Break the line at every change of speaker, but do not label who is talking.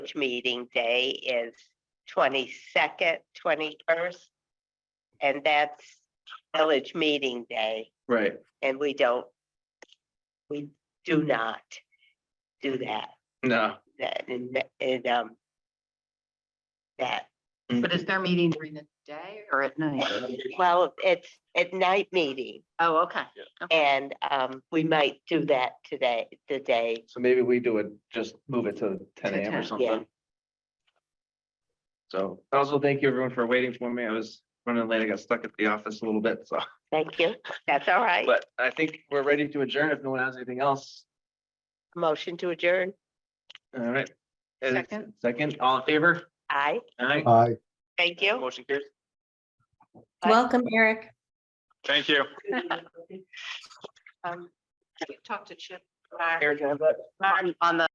meeting day is twenty-second, twenty-first. And that's village meeting day,
Right,
and we don't, we do not do that,
no.
that, and, and, um, that,
But is their meeting during the day or at night?
well, it's at night meeting,
Oh, okay.
and, um, we might do that today, today.
So maybe we do it, just move it to ten
To
AM
10,
or
yeah.
something. So also thank you everyone for waiting for me. I was running late. I got stuck at the office a little bit, so,
Thank you, that's all right.
but I think we're ready to adjourn if no one has anything else.
Motion to adjourn,
All right. Uh,
Second.
Second, all in favor?
aye,
Aye.
Aye.
thank you.
Uh, Motion carries.
Bye.
Welcome, Eric.
Thank you.
Um, Talk to Chip
Bye.
Eric, can I have that?
on, on the